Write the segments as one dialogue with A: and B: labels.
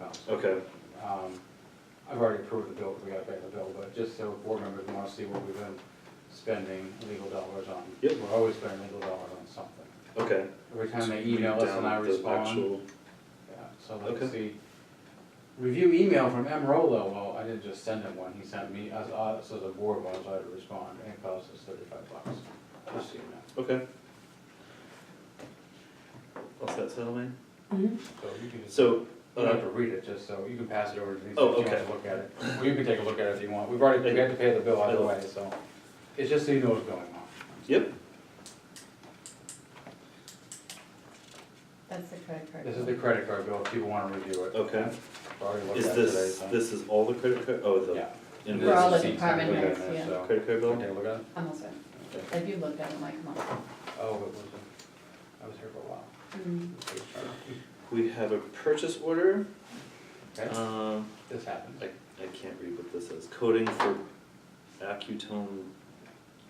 A: yes.
B: Okay,
A: Um, I've already approved the bill, because we gotta pay the bill, but just so board members wanna see what we've been spending legal dollars on.
B: Yep.
A: We're always spending legal dollars on something.
B: okay.
A: Every time they
B: So we
A: email us
B: down
A: and I
B: the
A: respond,
B: actual-
A: yeah, so let's
B: Okay.
A: see. Review email from M. Rolo, well, I didn't just send him one, he sent me, us, us as a board one, so I had to respond, and it cost us thirty-five bucks, just so you know.
B: Okay. What's that settlement?
A: So you can just,
B: So,
A: you don't have
B: uh,
A: to read it, just so, you can pass it over to me,
B: Oh,
A: so you
B: okay.
A: to look at it. Well, you can take a look at it if you want, we've already, we had to pay the bill either way, so, it's just so you know what's going on.
B: yep,
C: That's the credit card.
A: This is the credit card bill, if people wanna review it.
B: Okay.
A: We've Already looked
B: is
A: at it today,
B: this,
A: so.
B: this is all the credit card, oh,
A: Yeah.
B: the
A: And
B: invoice.
C: For all
A: this
C: the
A: is
C: department
A: included in
C: heads,
A: there,
C: yeah.
A: so-
B: Credit card bill?
A: Take a look at it.
C: I'm all set. If you looked at it, Mike, come on.
A: Oh, but was it, I was here for a while. Mm-hmm.
C: Mm,
B: We have a purchase order,
A: Okay,
B: um,
A: this happened.
B: I, I can't read what this is, coding for Accutone,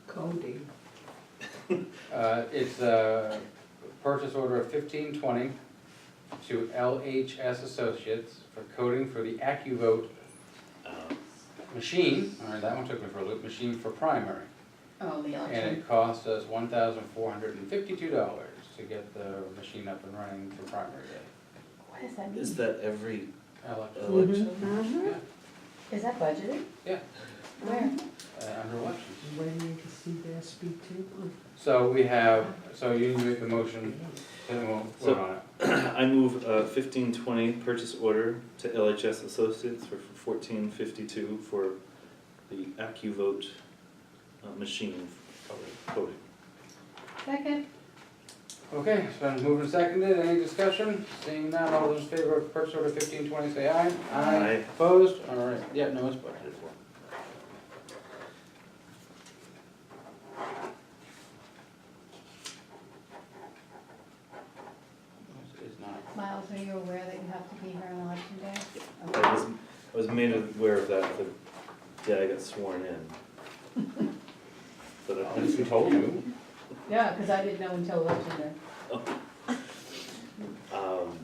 D: Cody.
A: Uh, it's a purchase order of fifteen twenty to LHS Associates for coding for the AccuVote
B: uh,
A: machine, all right, that one took me for a loop, machine for primary.
C: Oh,
A: And
C: the election.
A: it cost us one thousand four hundred and fifty-two dollars to get the machine up and running for primary day.
C: What does that mean?
B: is that every
A: Election,
B: election?
A: yeah,
C: Is that budgeted?
A: yeah,
C: Where?
A: uh, under elections.
D: Waiting to see that speak to.
A: So we have, so you need to make the motion, then we'll vote on it.
B: I move uh, fifteen twenty purchase order to LHS Associates for fourteen fifty-two for the AccuVote uh, machine coding.
C: Second?
A: Okay, it's been moved and seconded, any discussion? Seeing none, all those in favor of purchase order fifteen twenty, say aye.
B: Aye.
A: Opposed? All right, yeah, no, it's budgeted for. It's- It's not.
C: Miles, are you aware that you have to be here on election day?
B: I was, I was made aware of that the day I got sworn in. But I-
A: Who told you?
C: Yeah, because I didn't know until election day.
B: um,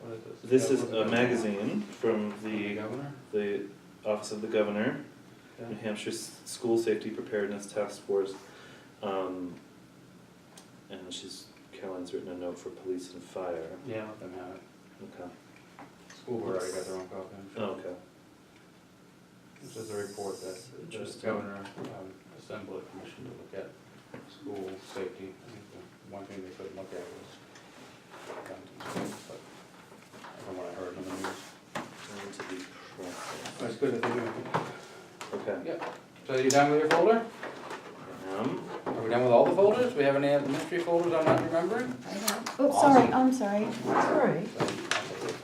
A: What is this?
B: This is a magazine from the,
A: Governor?
B: the Office of the Governor.
A: Yeah.
B: New Hampshire S- School Safety Preparedness Task Force. Um, and she's, Caroline's written a note for police and fire.
A: Yeah, let them have it.
B: Okay.
A: School board already got their own copy. I'm sure.
B: Oh, okay.
A: This is a report that the
B: Interesting.
A: governor um, assembled a commission to look at school safety. I think the one thing they couldn't look at was guns and stuff, but from what I heard on the news.
B: I need to be proactive.
A: That's good that they do.
B: Okay.
A: Yep. So you done with your folder?
B: Um,
A: Are we done with all the folders? We have any mystery folders I'm not remembering?
C: I don't.
A: Oh, sorry,
C: I'm sorry.
D: That's all right.
A: So,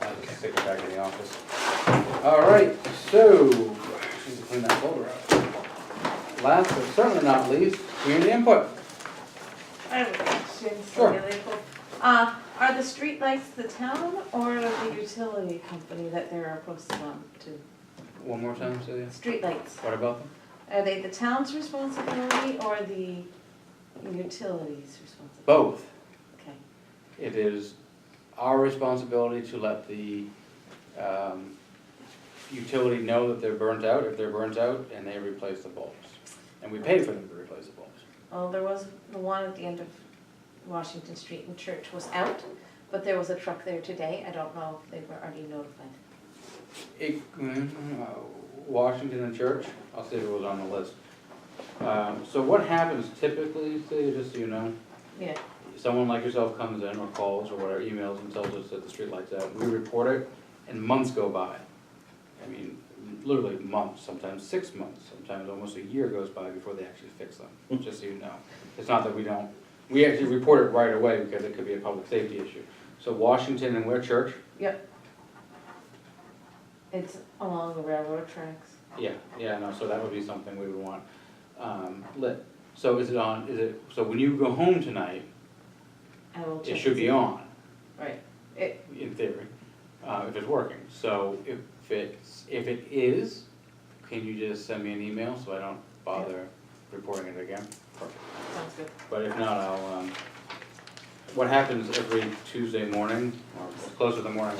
A: I'll just stick it back in the office. All right, so, need to clean that folder out. Last but certainly not least, community input.
E: I have a question,
A: Sure.
E: really cool. Uh, are the streetlights the town or the utility company that they're posted on to?
A: One more time, Celia.
E: Streetlights,
A: What about them?
E: are they the town's responsibility or the utility's responsibility?
A: Both.
E: Okay.
A: It is our responsibility to let the um, utility know that they're burnt out, if they're burnt out, and they replace the bulbs. And we pay for them to replace the bulbs.
E: Well, there was, the one at the end of Washington Street and Church was out, but there was a truck there today. I don't know if they were already notified.
A: It, mm, uh, Washington and Church, I'll see if it was on the list. Um, So what happens typically, Celia, just so you know,
E: Yeah,
A: someone like yourself comes in or calls or whatever, emails and tells us that the streetlight's out, we report it, and months go by. I mean, literally months, sometimes six months, sometimes almost a year goes by before they actually fix them, just so you know. It's not that we don't, we actually report it right away because it could be a public safety issue. So Washington and where church?
E: yep. It's along the railroad tracks.
A: Yeah, yeah, no, so that would be something we would want, um, lit. So is it on, is it, so when you go home tonight,
E: I will check.
A: it
E: and
A: should be
E: see.
A: on.
E: Right, it,
A: in theory, uh, if it's working. So if it's, if it is, can you just send me an email so I don't bother reporting it again?
E: Sounds good.
A: But if not, I'll, um, what happens every Tuesday morning, or as close to the morning as